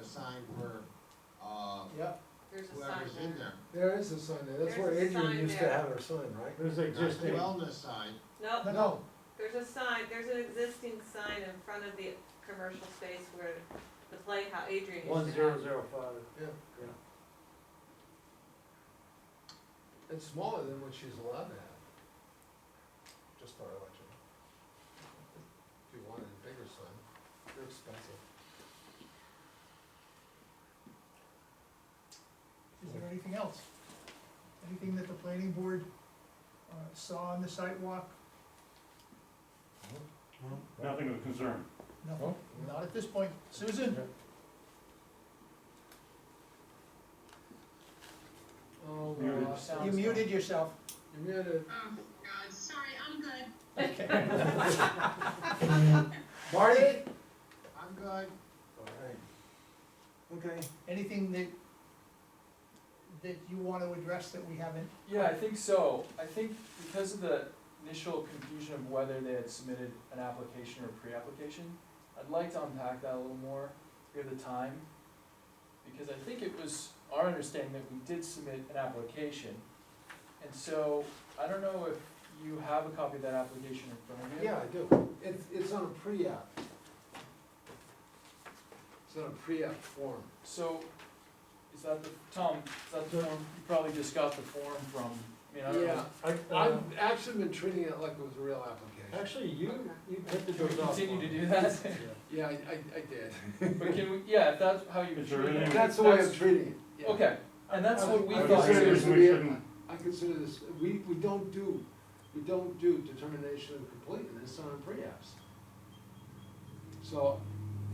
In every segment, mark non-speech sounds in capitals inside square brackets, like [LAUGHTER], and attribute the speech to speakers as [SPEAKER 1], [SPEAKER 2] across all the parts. [SPEAKER 1] a sign for, uh,
[SPEAKER 2] Yep,
[SPEAKER 3] There's a sign
[SPEAKER 1] whoever's in
[SPEAKER 3] there.
[SPEAKER 1] there.
[SPEAKER 4] There is a sign there, that's where
[SPEAKER 3] There's a
[SPEAKER 4] Adrian
[SPEAKER 3] sign
[SPEAKER 4] used to
[SPEAKER 3] there.
[SPEAKER 4] have her sign, right?
[SPEAKER 5] There's
[SPEAKER 1] Not the
[SPEAKER 5] existing,
[SPEAKER 1] wellness sign,
[SPEAKER 3] No,
[SPEAKER 4] No,
[SPEAKER 3] there's a sign, there's an existing sign in front of the commercial space where the playhouse, Adrian
[SPEAKER 5] one
[SPEAKER 3] used to
[SPEAKER 5] zero
[SPEAKER 3] have.
[SPEAKER 5] zero five.
[SPEAKER 4] it's smaller than what she's allowed to have. Just thought I'd let you know. If you wanted a bigger sign, they're expensive.
[SPEAKER 6] Is there anything else? Anything that the planning board uh, saw on the sidewalk?
[SPEAKER 5] Nothing of concern.
[SPEAKER 6] Nothing, not at this point. Susan?
[SPEAKER 4] Oh,
[SPEAKER 5] Muted.
[SPEAKER 4] well,
[SPEAKER 6] You muted yourself.
[SPEAKER 4] You muted.
[SPEAKER 7] Oh, God, sorry, I'm good.
[SPEAKER 6] Okay.
[SPEAKER 7] [LAUGHS]
[SPEAKER 4] Marty?
[SPEAKER 1] I'm good.
[SPEAKER 2] okay.
[SPEAKER 6] Anything that, that you want to address that we haven't?
[SPEAKER 8] Yeah, I think so. I think because of the initial confusion of whether they had submitted an application or a pre-application, I'd like to unpack that a little more if we have the time. Because I think it was our understanding that we did submit an application. And so, I don't know if you have a copy of that application in front of you.
[SPEAKER 4] Yeah, I do. It's, it's on a pre-app. It's on a pre-app form.
[SPEAKER 8] So, is that the, Tom, is that the form, you probably just got the form from, I mean, I don't know.
[SPEAKER 4] Yeah,
[SPEAKER 5] I, uh,
[SPEAKER 4] I've actually been treating it like it was a real application.
[SPEAKER 5] actually, you, you took the
[SPEAKER 8] Can we
[SPEAKER 5] doors off.
[SPEAKER 8] continue to
[SPEAKER 5] one.
[SPEAKER 8] do that?
[SPEAKER 4] Yeah, I, I, I did.
[SPEAKER 8] [LAUGHS] But can we, yeah, if that's how you.
[SPEAKER 5] Is there
[SPEAKER 8] treat it.
[SPEAKER 5] [LAUGHS] anything-
[SPEAKER 4] That's the way I'm treating it. yeah.
[SPEAKER 8] Okay, and that's what we
[SPEAKER 4] I
[SPEAKER 5] I
[SPEAKER 8] thought.
[SPEAKER 4] consider
[SPEAKER 5] think
[SPEAKER 4] this
[SPEAKER 5] we
[SPEAKER 4] to be a-
[SPEAKER 5] shouldn't-
[SPEAKER 4] I consider this, we, we don't do, we don't do determination of completeness on pre-apps. So,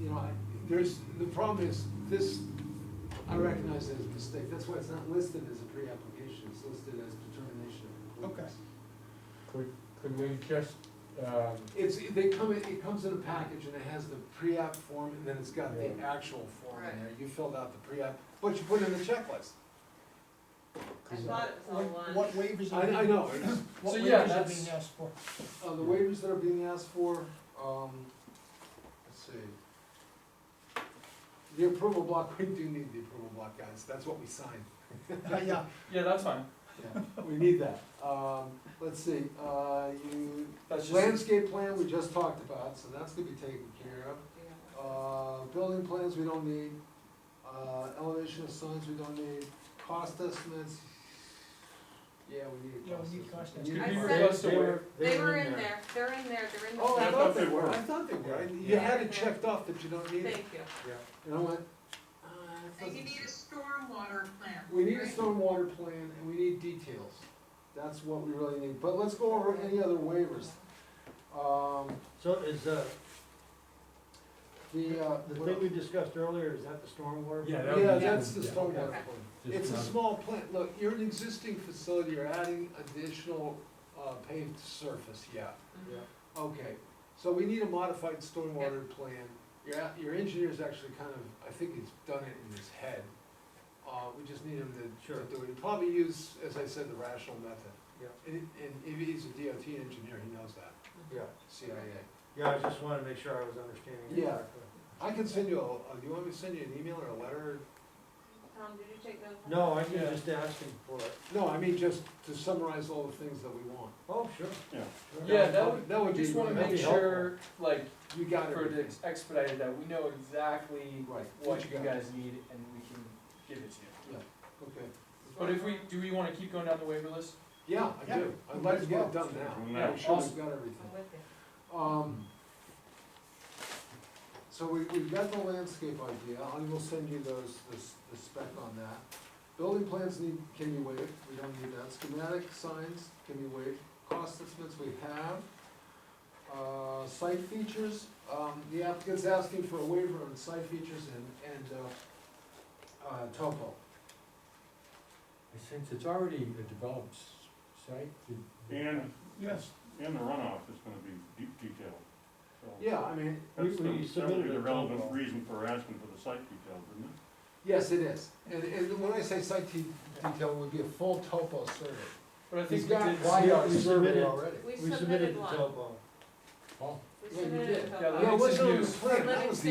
[SPEAKER 4] you know, I, there's, the problem is, this, I recognize it as a mistake, that's why it's not listed as a pre-application, it's listed as determination of completeness.
[SPEAKER 5] Could, could we just, um,
[SPEAKER 4] It's, they come, in it comes in a package and it has the pre-app form and then it's got the
[SPEAKER 5] Yeah.
[SPEAKER 4] actual form in
[SPEAKER 3] Right.
[SPEAKER 4] there, you filled out the pre-app, but you put in the checklist.
[SPEAKER 3] I thought it was all
[SPEAKER 6] What
[SPEAKER 3] one.
[SPEAKER 6] what waivers
[SPEAKER 4] I,
[SPEAKER 6] are
[SPEAKER 4] I
[SPEAKER 6] being,
[SPEAKER 4] know,
[SPEAKER 8] [LAUGHS]
[SPEAKER 6] what
[SPEAKER 8] So, yeah,
[SPEAKER 6] waivers are
[SPEAKER 8] that's-
[SPEAKER 6] being asked for?
[SPEAKER 4] Uh, the waivers that are being asked for, um, let's see. The approval block, [LAUGHS] we do need the approval block, guys, that's what we signed,
[SPEAKER 6] Yeah,
[SPEAKER 8] Yeah, that's fine.
[SPEAKER 4] yeah, we need that. Um, let's see, uh, you,
[SPEAKER 8] That's just,
[SPEAKER 4] landscape plan, we just talked about, so that's gonna be taken care of. Uh, building plans, we don't need, uh, elevation of signs, we don't need, cost estimates, yeah, we need a
[SPEAKER 6] Yeah, we
[SPEAKER 4] cost estimate.
[SPEAKER 6] need cost
[SPEAKER 4] We need
[SPEAKER 3] I
[SPEAKER 5] they-
[SPEAKER 3] said-
[SPEAKER 5] they
[SPEAKER 8] They
[SPEAKER 5] were-
[SPEAKER 3] They were in there, they're in there, they're in the.
[SPEAKER 4] Oh, I
[SPEAKER 5] I
[SPEAKER 4] thought
[SPEAKER 5] thought
[SPEAKER 4] they
[SPEAKER 5] they
[SPEAKER 4] were,
[SPEAKER 5] were.
[SPEAKER 4] I thought they were, I- you
[SPEAKER 3] Yeah.
[SPEAKER 4] had it checked off that you don't need it,
[SPEAKER 3] Thank you.
[SPEAKER 4] and I went, uh, that
[SPEAKER 7] And you
[SPEAKER 4] doesn't
[SPEAKER 7] need a
[SPEAKER 4] s-
[SPEAKER 7] stormwater plan.
[SPEAKER 4] We need a
[SPEAKER 7] right?
[SPEAKER 4] stormwater plan and we need details, that's what we really need, but let's go over any other waivers, um,
[SPEAKER 5] So is, uh,
[SPEAKER 4] the, uh.
[SPEAKER 5] the
[SPEAKER 4] what
[SPEAKER 5] thing we
[SPEAKER 4] else?
[SPEAKER 5] discussed earlier, is that the stormwater?
[SPEAKER 8] Yeah, that
[SPEAKER 4] Yeah,
[SPEAKER 8] was-
[SPEAKER 4] that's the
[SPEAKER 5] yeah,
[SPEAKER 4] stormwater
[SPEAKER 3] okay.
[SPEAKER 4] plan, it's a small plant, look, you're an existing facility, you're adding additional, uh, paved surface, yeah.
[SPEAKER 3] Mhm.
[SPEAKER 4] Okay, so we need a modified stormwater plan. Your, a- your engineer's actually kind of, I think he's done it in his head. Uh, we just need him to,
[SPEAKER 5] Sure.
[SPEAKER 4] to do it. He'd probably use, as I said, the rational method.
[SPEAKER 5] Yeah.
[SPEAKER 4] And, and if he's a DOT engineer, he knows that,
[SPEAKER 5] Yeah,
[SPEAKER 4] CIA.
[SPEAKER 5] yeah, I just wanted to make sure I was understanding it
[SPEAKER 4] Yeah.
[SPEAKER 5] correctly.
[SPEAKER 4] I can send you a, uh, do you want me to send you an email or a letter?
[SPEAKER 3] Tom, did you take notes? on
[SPEAKER 5] No, I was
[SPEAKER 8] Yeah.
[SPEAKER 5] just asking for it.
[SPEAKER 4] No, I mean, just to summarize all the things that we want.
[SPEAKER 5] Oh, sure.
[SPEAKER 4] Sure.
[SPEAKER 8] Yeah, that would-
[SPEAKER 4] That
[SPEAKER 8] I
[SPEAKER 4] would be.
[SPEAKER 8] just wanna
[SPEAKER 4] that'd
[SPEAKER 8] make
[SPEAKER 4] be helpful.
[SPEAKER 8] sure, like,
[SPEAKER 4] You got
[SPEAKER 8] for the
[SPEAKER 4] it.
[SPEAKER 8] expedited, that we know exactly
[SPEAKER 4] Right.
[SPEAKER 8] what
[SPEAKER 4] you
[SPEAKER 8] you
[SPEAKER 4] got.
[SPEAKER 8] guys need and we can give it to you.
[SPEAKER 4] Okay.
[SPEAKER 8] But if we, do we wanna keep going down the waiver list?
[SPEAKER 4] Yeah, I
[SPEAKER 6] Yeah,
[SPEAKER 4] do. I'd
[SPEAKER 6] might
[SPEAKER 4] like to
[SPEAKER 6] as
[SPEAKER 4] get it
[SPEAKER 6] well.
[SPEAKER 4] done now.
[SPEAKER 5] Yeah,
[SPEAKER 4] I'm sure we've
[SPEAKER 8] awesome.
[SPEAKER 4] got everything.
[SPEAKER 3] I'm with you.
[SPEAKER 4] Um, so we, we've got the landscape idea, I will send you those, the, s- the spec on that. Building plans need, can be waived, we don't need that, schematic signs can be waived, cost estimates we have. Uh, site features, um, the applicant's asking for a waiver on site features and, and, uh, uh, topo.
[SPEAKER 9] Since it's already a developed s- site, did-
[SPEAKER 5] And,
[SPEAKER 6] yes.
[SPEAKER 5] and the runoff is gonna be detailed, so.
[SPEAKER 4] Yeah, I mean,
[SPEAKER 5] We,
[SPEAKER 9] That's the- that
[SPEAKER 5] we
[SPEAKER 9] would
[SPEAKER 5] submitted
[SPEAKER 9] be
[SPEAKER 5] a
[SPEAKER 9] the
[SPEAKER 5] relevant
[SPEAKER 9] total.
[SPEAKER 5] reason for asking for the site details, didn't it?
[SPEAKER 4] yes, it is, and, and when I say site te- detail, it would be a full topo survey.
[SPEAKER 8] But I think
[SPEAKER 4] He's
[SPEAKER 8] we
[SPEAKER 4] got
[SPEAKER 8] did,
[SPEAKER 5] why-
[SPEAKER 4] wide out
[SPEAKER 5] we
[SPEAKER 4] survey
[SPEAKER 5] submitted-
[SPEAKER 4] already.
[SPEAKER 3] We
[SPEAKER 5] We submitted
[SPEAKER 3] submitted
[SPEAKER 5] the
[SPEAKER 3] one,
[SPEAKER 5] topo.
[SPEAKER 9] oh,
[SPEAKER 3] we
[SPEAKER 4] Yeah, you
[SPEAKER 3] submitted
[SPEAKER 4] did.
[SPEAKER 3] a
[SPEAKER 8] Yeah,
[SPEAKER 3] total.
[SPEAKER 8] that
[SPEAKER 4] Yeah, it
[SPEAKER 8] makes
[SPEAKER 4] wasn't
[SPEAKER 8] it
[SPEAKER 4] on the
[SPEAKER 8] news.
[SPEAKER 4] plan, that was the